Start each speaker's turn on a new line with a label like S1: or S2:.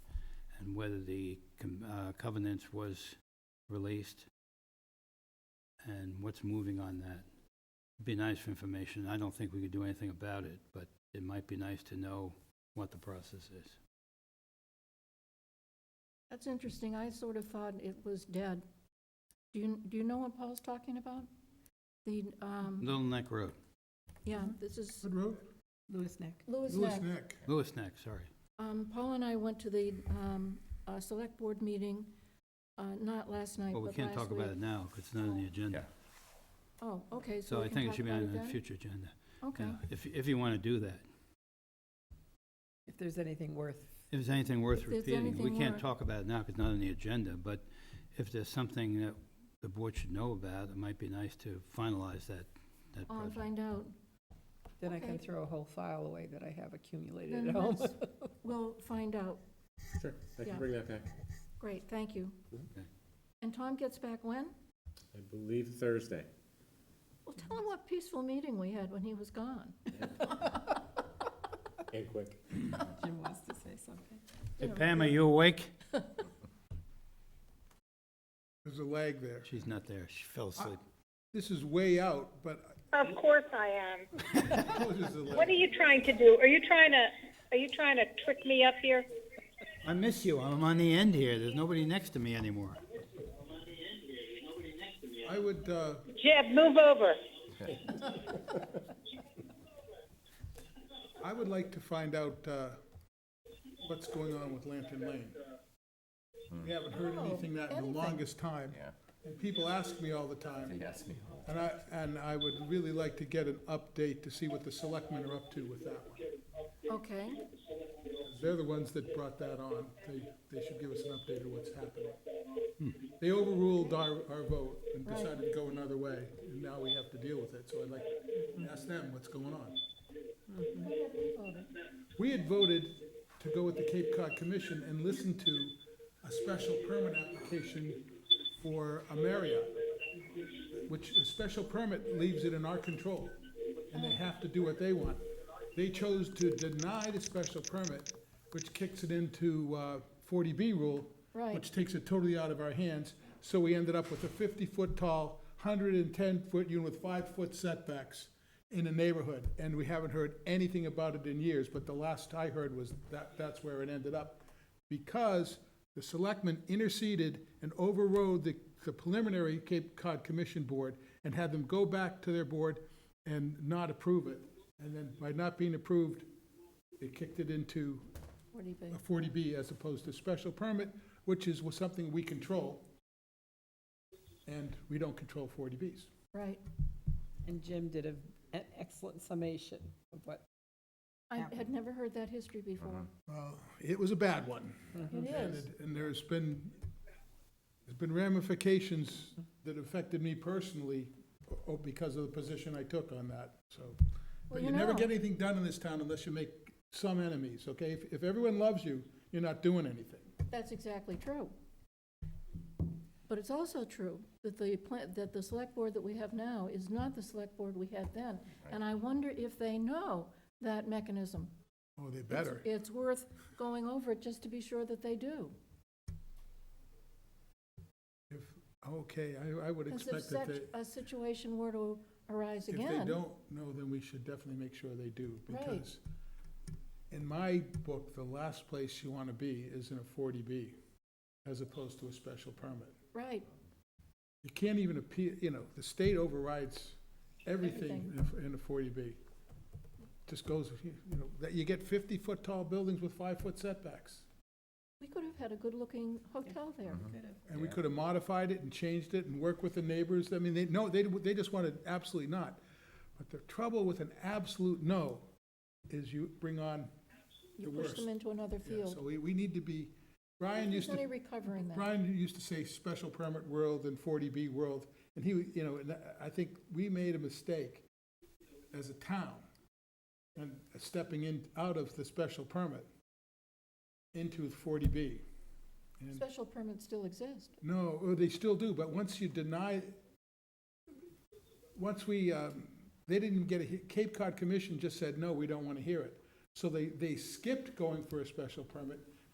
S1: and whether the com- uh, covenants was released, and what's moving on that. Be nice for information. I don't think we could do anything about it, but it might be nice to know what the process is.
S2: That's interesting. I sort of thought it was dead. Do you, do you know what Paul's talking about? The, um,
S1: Little Neck Road,
S2: yeah, this is
S3: Good road?
S4: Lewis Neck.
S2: Lewis
S3: Lewis
S2: Neck.
S3: Neck.
S1: Lewis Neck, sorry.
S2: Um, Paul and I went to the, um, uh, select board meeting, uh, not last night,
S1: Well,
S2: but
S1: we
S2: last
S1: can't talk about
S2: week.
S1: it now, because it's not on the agenda.
S2: Oh, okay, so
S1: So
S2: we
S1: I
S2: can
S1: think it
S2: talk
S1: should be
S2: about
S1: on
S2: then?
S1: the future agenda,
S2: Okay,
S1: yeah, if, if you want to do that.
S4: If there's anything worth,
S1: If there's anything worth
S2: If there's
S1: repeating, we
S2: anything
S1: can't
S2: worth-
S1: talk about it now because it's not on the agenda, but if there's something that the board should know about, it might be nice to finalize that, that
S2: I'll
S1: project.
S2: find out.
S4: then I can
S2: Okay.
S4: throw a whole file away that I have accumulated
S2: Then
S4: at home.
S2: let's- We'll find out.
S5: Sure, I
S2: Yeah.
S5: can bring that back.
S2: Great, thank you.
S1: Okay.
S2: And Tom gets back when?
S5: I believe Thursday.
S2: Well, tell him what peaceful meeting we had when he was gone.
S5: And quick.
S4: Jim wants to say something.
S1: Hey
S2: Yeah.
S1: Pam, are you awake?
S3: There's a lag there.
S1: She's not there, she fell asleep.
S3: This is way out, but
S6: Of course I am.
S3: I know there's a lag.
S6: What are you trying to do? Are you trying to, are you trying to trick me up here?
S1: I miss you, I'm on the end here, there's nobody next to me anymore.
S3: I would, uh,
S6: Jeb, move over.
S3: I would like to find out, uh, what's going on with Lantern Lane. We haven't heard
S2: Oh,
S3: anything that in
S2: anything.
S3: the longest time. Yeah. And people ask me all the time. They ask me. And I, and I would really like to get an update to see what the selectmen are up to with that one.
S2: Okay,
S3: They're the ones that brought that on. They, they should give us an update of what's happening. They overruled our, our vote and decided to go another way, and now we have to deal with it. So I'd like to ask them what's going on. We had voted to go with the Cape Cod Commission and listen to a special permit application for a Marriott, which a special permit leaves it in our control, and they have to do what they want. They chose to deny the special permit, which kicks it into uh, 40B rule,
S2: Right.
S3: which takes it totally out of our hands. So we ended up with a 50-foot tall, 110-foot unit with five-foot setbacks in a neighborhood, and we haven't heard anything about it in years, but the last I heard was that, that's where it ended up. Because the selectmen interceded and overrode the, the preliminary Cape Cod Commission Board and had them go back to their board and not approve it. And then by not being approved, they kicked it into
S2: forty B.
S3: a forty B as opposed to special permit, which is something we control. And we don't control forty Bs.
S2: right.
S4: And Jim did a- an excellent summation of what,
S2: I
S4: That
S2: had never heard that history before.
S3: Well, it was a bad one.
S2: It
S3: And
S2: is.
S3: it- And there's been, there's been ramifications that affected me personally o- because of the position I took on that, so. But
S2: you
S3: you never
S2: know.
S3: get anything done in this town unless you make some enemies, okay? If, if everyone loves you, you're not doing anything.
S2: That's exactly true. But it's also true that the, pla- that the select board that we have now is not the select board we had then. And I wonder if they know that mechanism.
S3: Oh, they
S2: It's-
S3: better.
S2: It's worth going over it just to be sure that they do.
S3: If, okay, I, I would
S2: Because if
S3: expect that
S2: such
S3: they,
S2: a situation were to arise
S3: if they
S2: again.
S3: don't know, then we should definitely make sure they do.
S2: Right.
S3: Because in my book, the last place you want to be is in a forty B as opposed to a special permit.
S2: Right,
S3: You can't even appeal, you know, the state overrides everything in a- in a forty B. Just goes, you know, that you get fifty-foot tall buildings with five-foot setbacks.
S2: we could have had a good-looking hotel there.
S3: Uh-huh. And we could have modified it and changed it and worked with the neighbors. I mean, they, no, they, they just wanted absolutely not. But the trouble with an absolute no is you bring on
S2: You
S3: the
S2: push
S3: worst.
S2: them into another
S3: Yeah, so
S2: field.
S3: we, we need to be, Brian
S2: There's
S3: used
S2: any
S3: to,
S2: recovering that.
S3: Brian used to say special permit world and forty B world. And he, you know, and I- I think we made a mistake as a town and stepping in, out of the special permit into forty B. And
S2: Special permits still exist.
S3: no, oh, they still do, but once you deny, once we, um, they didn't get a, he- Cape Cod Commission just said, no, we don't want to hear it. So they, they skipped going for a special permit